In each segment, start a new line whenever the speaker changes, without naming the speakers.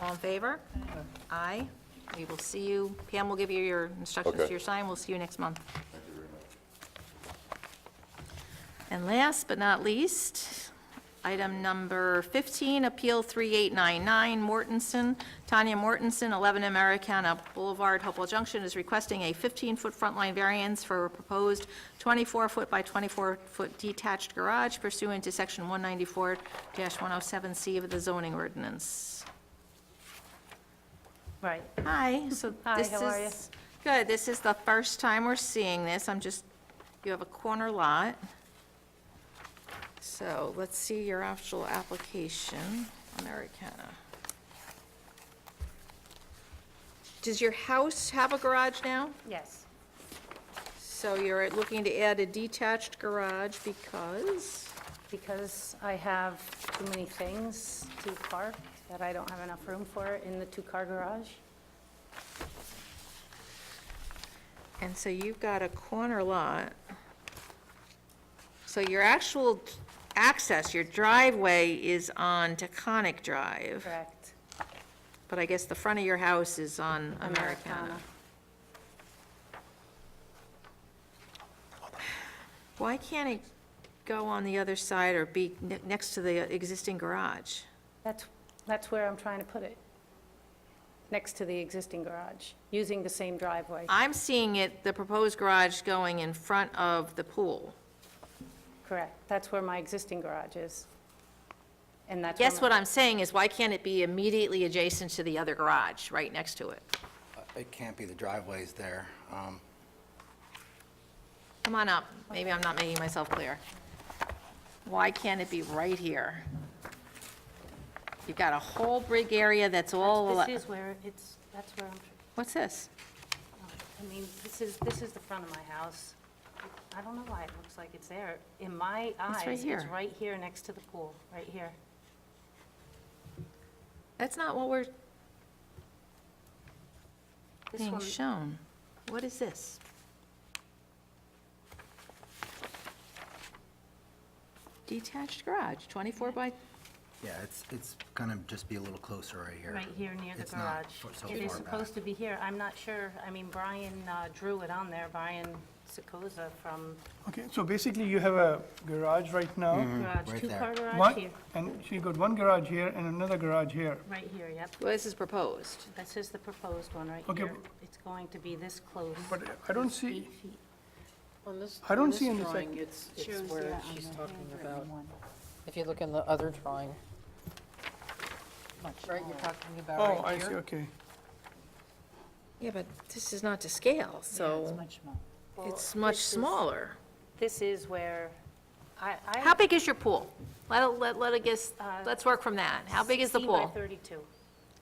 All in favor? Aye. We will see you. Pam will give you your instructions to
Okay.
your sign. We'll see you next month. And last but not least, item number 15, Appeal 3899 Mortensen. Tanya Mortensen, 11 Americana Boulevard, Hopewell Junction, is requesting a 15-foot front line variance for a proposed 24-foot by 24-foot detached garage pursuant to Section 194-107C of the zoning ordinance.
Right.
Hi, so
Hi,
this is...
how are you?
Good, this is the first time we're seeing this, I'm just, you have a corner lot. So let's see your actual application, Americana. Does your house have a garage now?
Yes.
So you're looking to add a detached garage because,
Because I have too many things to park that I don't have enough room for in the two-car garage.
and so you've got a corner lot. So your actual access, your driveway is on Taconic Drive.
Correct.
But I guess the front of your house is on Americana. Why can't it go on the other side or be ne- next to the existing garage?
That's, that's where I'm trying to put it, next to the existing garage, using the same driveway.
I'm seeing it, the proposed garage going in front of the pool.
Correct. That's where my existing garage is. And that's. where
Guess
my-
what I'm saying is, why can't it be immediately adjacent to the other garage, right next to it?
It can't be, the driveway's there. Um,
Come on up, maybe I'm not making myself clear. Why can't it be right here? You've got a whole brick area that's all,
This is where it's, that's where I'm,
what's this?
I mean, this is, this is the front of my house. I don't know why it looks like it's there. In my
right
eyes, it's
here.
right here next to the pool, right here.
That's not what we're
This
being
one,
shown. What is this? Detached garage, 24 by,
Yeah, it's, it's gonna just be a little closer right here.
right here near the
It's not
garage.
fo- so
It is
far
supposed
back.
to be here. I'm not sure. I mean, Brian uh, drew it on there, Brian Secoza from
Okay, so basically you have a garage right now.
Garage,
Hmm, right there.
two-car garage
One,
here.
and so you got one garage here and another garage here.
Right here, yep.
well, this is proposed.
This is the proposed one right
Okay,
here.
but-
It's going to be this close.
But I don't see,
On this,
I don't
on this
see in the
drawing,
sec-
it's, it's where she's talking about, if you look in the other drawing. Right, you're talking about right
oh,
here.
I see, okay.
Yeah, but this is not to scale, so
Well,
it's much
this is-
smaller.
This is where, I, I.
How big is your pool? Let, let, let it guess,
Uh,
let's work from that. How big is the
16 by
pool?
32.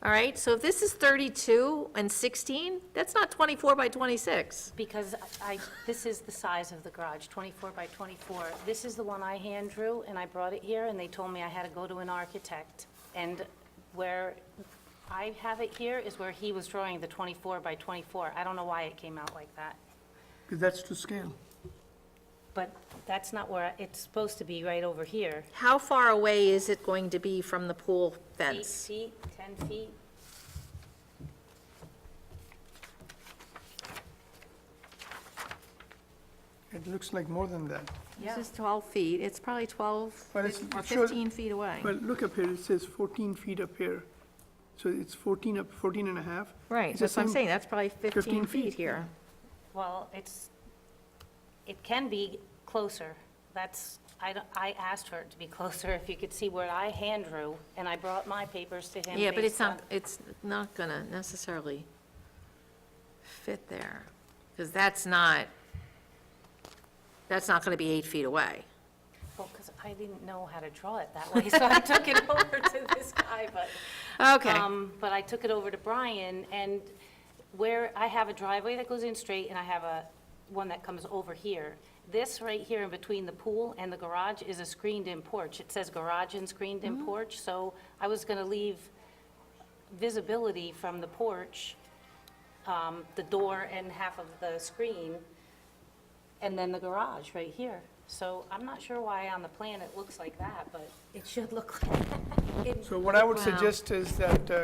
All right, so if this is 32 and 16, that's not 24 by 26.
Because I, this is the size of the garage, 24 by 24. This is the one I hand drew, and I brought it here, and they told me I had to go to an architect. And where I have it here is where he was drawing the 24 by 24. I don't know why it came out like that.
'Cause That's to scale.
But that's not where, it's supposed to be right over here.
How far away is it going to be from the pool
Eight
fence?
feet, 10 feet,
It looks like more than that.
yeah.
This is 12 feet, it's probably 12
But it's-
or
it shows-
15 feet away.
Well, look up here, it says 14 feet up here. So it's 14 up, 14 and a half.
Right,
It's the
that's what I'm
same-
saying, that's probably 15
15
feet
feet.
here.
Well, it's, it can be closer. That's, I, don't- I asked for it to be closer, if you could see where I hand drew, and I brought my papers to him.
Yeah, but it's
based on-
not, it's not gonna necessarily fit there, because that's not, that's not gonna be eight feet away.
Well, because I didn't know how to draw it that way, so I took it over to this guy, but.
Okay.
Um, But I took it over to Brian, and where, I have a driveway that goes in straight, and I have a, one that comes over here. This right here in between the pool and the garage is a screened-in porch. It says garage and screened-in porch, so I was going to leave visibility from the porch, um, the door and half of the screen, and then the garage right here. So I'm not sure why on the plan it looks like that, but it should look like that. in
So what I would
Wow.
suggest is that uh,